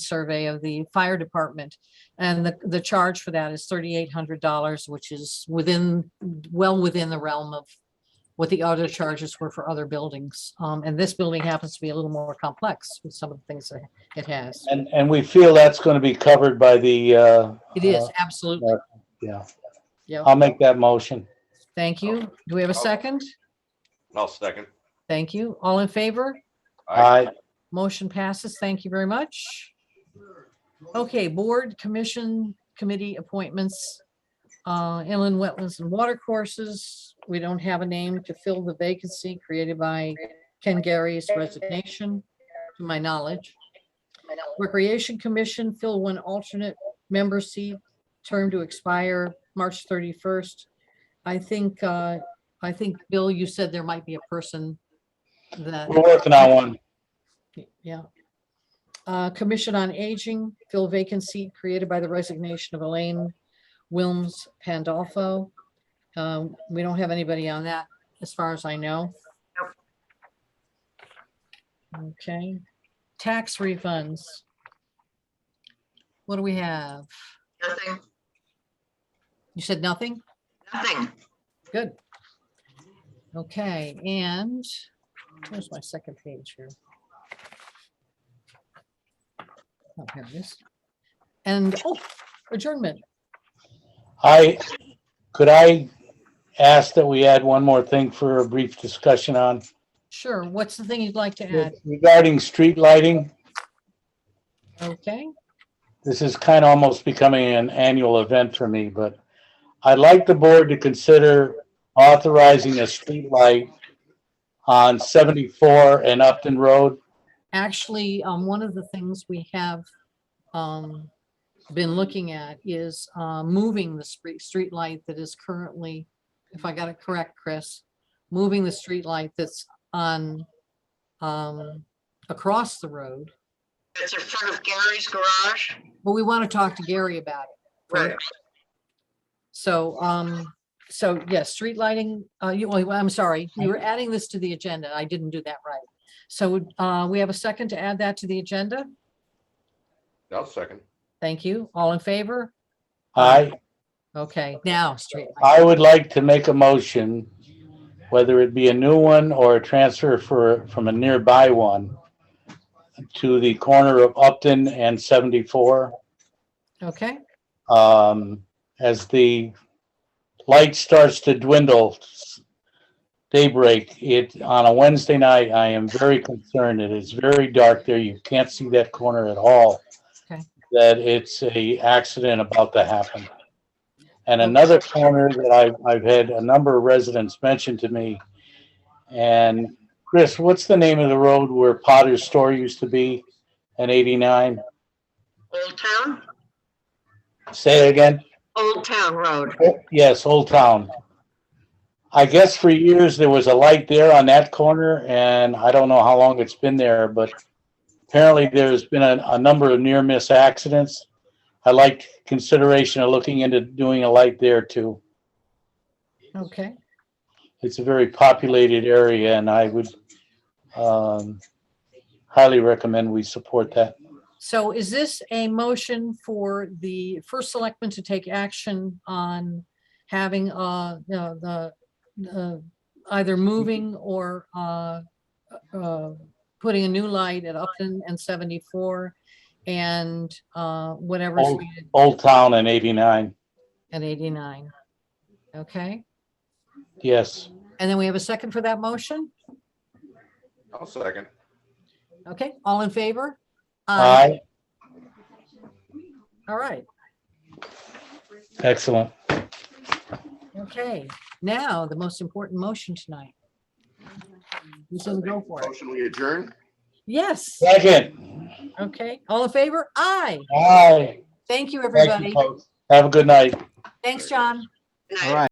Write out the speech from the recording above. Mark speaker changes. Speaker 1: survey of the fire department. And the, the charge for that is thirty-eight hundred dollars, which is within, well within the realm of what the other charges were for other buildings. Um, and this building happens to be a little more complex with some of the things that it has.
Speaker 2: And, and we feel that's going to be covered by the, uh,
Speaker 1: It is,
Speaker 2: uh,
Speaker 1: absolutely.
Speaker 2: Yeah,
Speaker 1: Yeah,
Speaker 2: I'll make that motion.
Speaker 1: thank you. Do we have a second?
Speaker 3: I'll second.
Speaker 1: Thank you. All in favor?
Speaker 2: I,
Speaker 1: Motion passes. Thank you very much. Okay, board, commission, committee appointments. uh, Inland wetlands and water courses. We don't have a name to fill the vacancy created by Ken Gary's resignation, to my knowledge. Recreation Commission, fill one alternate member seat, term to expire March 31st. I think, uh, I think, Bill, you said there might be a person that.
Speaker 2: we're working on one.
Speaker 1: Y- Yeah. Uh, Commission on Aging, fill vacant seat created by the resignation of Elaine Wilms Pandolfo. Um, We don't have anybody on that, as far as I know. Okay, tax refunds. What do we have?
Speaker 4: Nothing,
Speaker 1: You said nothing?
Speaker 4: nothing.
Speaker 1: Good. Okay, and where's my second page here? Oh, here it is. And, oh, adjournment.
Speaker 2: I, could I ask that we add one more thing for a brief discussion on
Speaker 1: Sure, what's the thing you'd like to add?
Speaker 2: regarding street lighting?
Speaker 1: Okay,
Speaker 2: this is kind of almost becoming an annual event for me, but I'd like the board to consider authorizing a streetlight on 74 and Upton Road.
Speaker 1: actually, um, one of the things we have, um, been looking at is, uh, moving the street, street light that is currently, if I got it correct, Chris, moving the street light that's on, um, across the road
Speaker 4: It's in front of Gary's garage.
Speaker 1: But we want to talk to Gary about it.
Speaker 5: Oh,
Speaker 4: Right.
Speaker 1: So, um, so yes, street lighting, uh, you, well, I'm sorry, you were adding this to the agenda. I didn't do that right. So, uh, we have a second to add that to the agenda.
Speaker 3: I'll second.
Speaker 1: Thank you. All in favor?
Speaker 2: I,
Speaker 1: Okay, now, street. lighting.
Speaker 2: I would like to make a motion, whether it be a new one or a transfer for, from a nearby one to the corner of Upton and 74,
Speaker 1: Okay,
Speaker 2: um, as the light starts to dwindle, daybreak, it, on a Wednesday night, I am very concerned. It is very dark there. You can't see that corner at all.
Speaker 1: Okay.
Speaker 2: That it's a accident about to happen. And another corner that I've, I've had a number of residents mention to me. And Chris, what's the name of the road where Potter's Store used to be in eighty-nine?
Speaker 4: Old Town,
Speaker 2: Say it again?
Speaker 4: Old Town Road.
Speaker 2: Oh, Yes, Old Town. I guess for years there was a light there on that corner and I don't know how long it's been there, but apparently there's been a, a number of near miss accidents. I like consideration of looking into doing a light there too.
Speaker 1: okay,
Speaker 2: It's a very populated area and I would, um, highly recommend we support that.
Speaker 1: so is this a motion for the first selectman to take action on having, uh, the, the, the, either moving or, uh, uh, putting a new light at Upton and 74 and uh, whatever's
Speaker 2: Oh.
Speaker 1: needed
Speaker 2: Old Town and eighty-nine,
Speaker 1: at 89. Okay,
Speaker 2: yes.
Speaker 1: and then we have a second for that motion?
Speaker 3: I'll second.
Speaker 1: Okay, all in favor?
Speaker 2: Aye,
Speaker 1: All right,
Speaker 2: excellent.
Speaker 1: okay. Now, the most important motion tonight. Who's going to go for it?
Speaker 3: Motion we adjourn?
Speaker 1: Yes,
Speaker 2: Second,
Speaker 1: okay, all in favor? Aye.
Speaker 2: aye.
Speaker 1: Thank you,
Speaker 2: Thank you,
Speaker 1: everybody.
Speaker 2: folks. Have a good night.
Speaker 1: Thanks, John.
Speaker 4: Night.
Speaker 5: All right.